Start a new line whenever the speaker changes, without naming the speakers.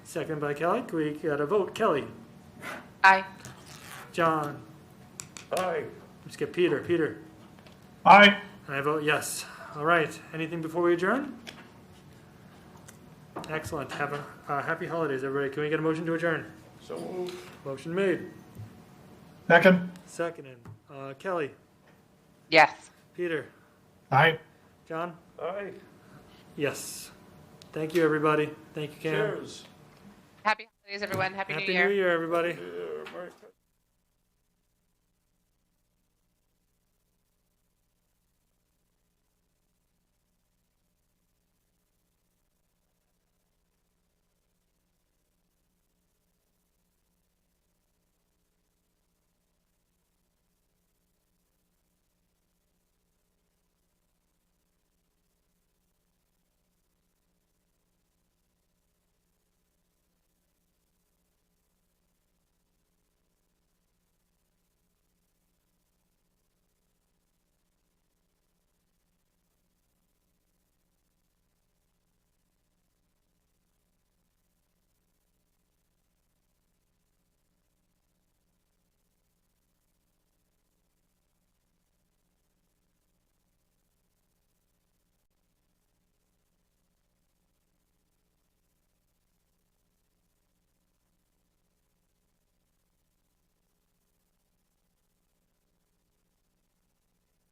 Second by Kelly. Can we got a vote? Kelly?
Aye.
John?
Aye.
Let's get Peter. Peter?
Aye.
And I vote yes. All right. Anything before we adjourn? Excellent. Have a uh, happy holidays, everybody. Can we get a motion to adjourn?
So moved.
Motion made.
Second.
Seconded. Uh, Kelly,
Yes.
Peter,
Aye.
John?
Aye.
Yes. Thank you, everybody. Thank you, Cam.
Cheers.
Happy holidays, everyone. Happy,
Happy New Year, everybody.
Yeah, Merry Christmas.